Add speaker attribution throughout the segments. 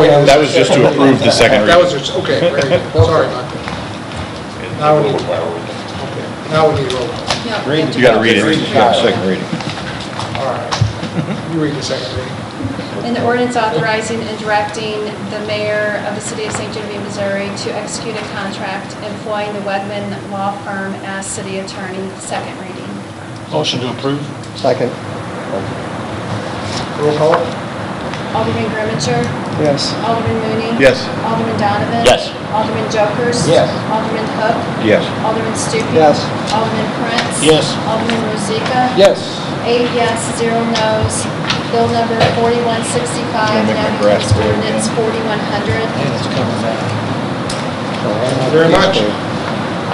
Speaker 1: That was just to approve the second
Speaker 2: Oh, That
Speaker 1: reading.
Speaker 2: was, just- okay, very good, sorry about that. Now we need, okay, now we need roll call.
Speaker 1: You gotta read it. You gotta second reading.
Speaker 2: All right, you read the second reading.
Speaker 3: An ordinance authorizing and directing the mayor of the city of St. Genevieve, Missouri to execute a contract employing the Wegman Law Firm as city attorney, second reading.
Speaker 4: Motion to approve?
Speaker 5: Second.
Speaker 2: Roll call?
Speaker 3: Alderman Grimmincher?
Speaker 5: Yes.
Speaker 3: Alderman Mooney?
Speaker 1: Yes.
Speaker 3: Alderman Donovan?
Speaker 4: Yes.
Speaker 3: Alderman Jokers?
Speaker 5: Yes.
Speaker 3: Alderman Hook?
Speaker 1: Yes.
Speaker 3: Alderman Stupi?
Speaker 5: Yes.
Speaker 3: Alderman Prince?
Speaker 4: Yes.
Speaker 3: Alderman Rozika?
Speaker 5: Yes.
Speaker 3: Eight yes, zero no's. Bill number 4165
Speaker 1: Gonna make my
Speaker 3: now
Speaker 1: grass
Speaker 3: becomes
Speaker 1: grow again.
Speaker 3: ordinance 4100.
Speaker 5: And it's coming back.
Speaker 2: Very much.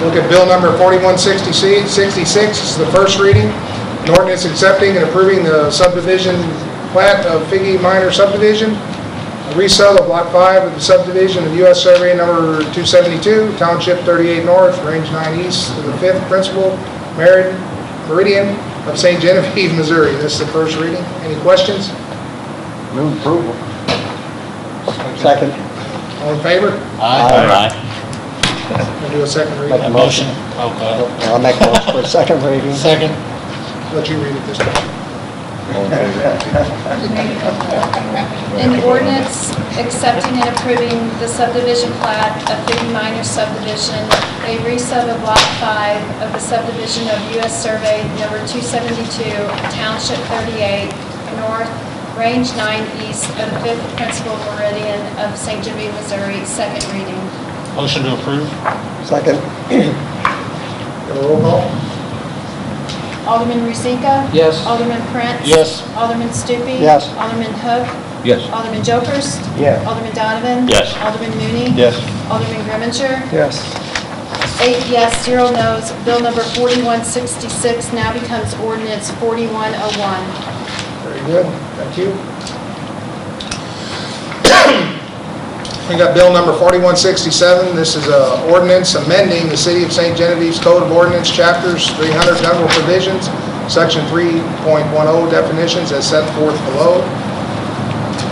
Speaker 2: Look at bill number 4166, this is the first reading, an ordinance accepting and approving the subdivision plat of Figgy Minor subdivision, a resell of lot 5 of the subdivision of US Survey number 272, Township 38 North, Range 9 East, to the 5th Principal Merid- Meridian of St. Genevieve, Missouri. This is the first reading. Any questions?
Speaker 5: Move approval. Second.
Speaker 2: All in favor?
Speaker 4: Aye.
Speaker 2: We'll do a second reading.
Speaker 5: Aye.
Speaker 4: Motion? Okay.
Speaker 5: I'll make motion for a second reading.
Speaker 4: Second?
Speaker 2: Let you read it this time.
Speaker 3: An ordinance accepting and approving the subdivision plat of Big Minor subdivision, a resub of Lot 5 of the subdivision of U.S. Survey Number 272, Township 38, North, Range 9 East of the 5th Principal Meridian of St. Genevieve, Missouri, second reading.
Speaker 4: Motion to approve?
Speaker 5: Second.
Speaker 2: Have a roll call?
Speaker 3: Alderman Rozika?
Speaker 5: Yes.
Speaker 3: Alderman Prince?
Speaker 4: Yes.
Speaker 3: Alderman Stupi?
Speaker 5: Yes.
Speaker 3: Alderman Hook?
Speaker 1: Yes.
Speaker 3: Alderman Jokers?
Speaker 5: Yes.
Speaker 3: Alderman Donovan?
Speaker 4: Yes.
Speaker 3: Alderman Mooney?
Speaker 1: Yes.
Speaker 3: Alderman Grimmincher?
Speaker 5: Yes.
Speaker 3: Eight yes, zero no's. Bill number 4166 now becomes ordinance 4101.
Speaker 2: Very good, thank you. We got bill number 4167, this is a ordinance amending the City of St. Genevieve's Code of Ordinance, Chapters 300, general provisions, Section 3.10 oh, definitions as set forth below.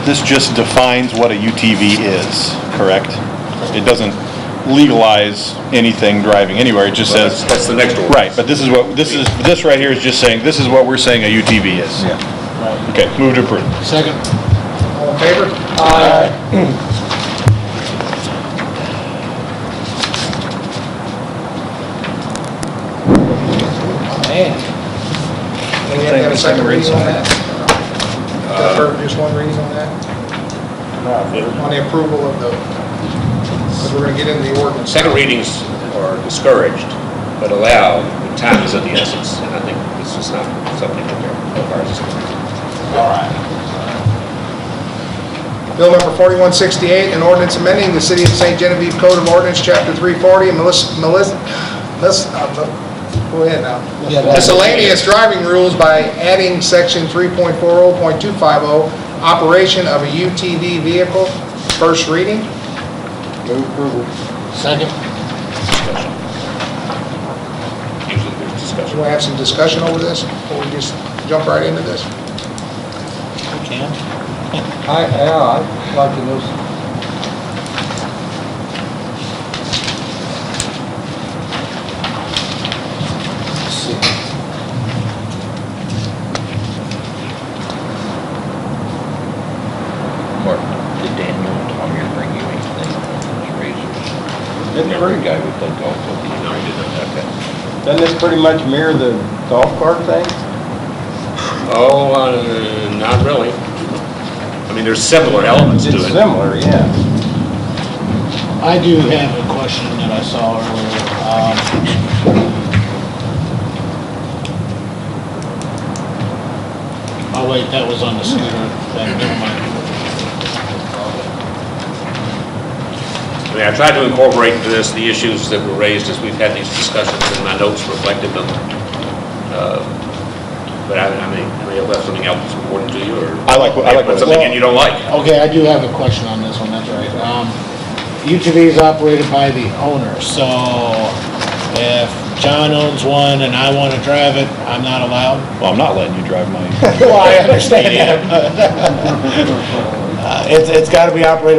Speaker 1: This just defines what a UTV is, correct? It doesn't legalize anything driving anywhere, it just says. That's the next one. Right, but this is what, this is, this right here is just saying, this is what we're saying a UTV is. Yeah.
Speaker 4: Right.
Speaker 1: Okay, move to approve.
Speaker 4: Second?
Speaker 2: All in favor?
Speaker 5: Man.
Speaker 2: And we have to have a second reading on that? Defer Just one reading on that? On the approval of the, because we're going to get into the ordinance.
Speaker 6: Second readings are discouraged, but allowed, but time is of the essence, and I think this is not something that they're, of ours is
Speaker 2: Bill number 4168, an ordinance amending the City of St. Genevieve Code of Ordinance, Chapter 340, and melis- melis- mis- uh, go ahead now.
Speaker 5: Yeah, that-
Speaker 2: miscellaneous driving rules by adding Section 3.40.250, operation of a UTV vehicle, first reading.
Speaker 5: Move approval.
Speaker 4: Second?
Speaker 6: discussion. Usually there's
Speaker 2: Do
Speaker 6: discussion.
Speaker 2: we have some discussion over this, or we just jump right into this?
Speaker 4: We can?
Speaker 5: I, yeah, I'd like to know. some- Let's see.
Speaker 7: Mark, did Daniel and Tommy bring you anything on those razors?
Speaker 5: Didn't
Speaker 7: Remember the guy we played golf with? No, he did not. Okay.
Speaker 5: Doesn't this pretty much mirror the golf cart thing?
Speaker 6: Oh, uh, not really. I mean, there's similar elements to
Speaker 5: It's
Speaker 6: it.
Speaker 5: similar, yeah.
Speaker 4: I do have a question that I saw earlier. Um, Oh, wait, that was on the scooter. That- Never mind.
Speaker 6: I mean, I tried to incorporate into this the issues that were raised as we've had these discussions, and my notes reflected them. Uh, But I, I mean, I may have left something else important to you, or...
Speaker 1: I like what- I like what-
Speaker 6: Something in you don't like.
Speaker 4: Okay, I do have a question on this one, that's right. Um, UTV is operated by the owner, so if John owns one and I want to drive it, I'm not allowed?
Speaker 1: Well, I'm not letting you drive my.
Speaker 4: Well, I understand that, but, uh, it's, it's gotta be operated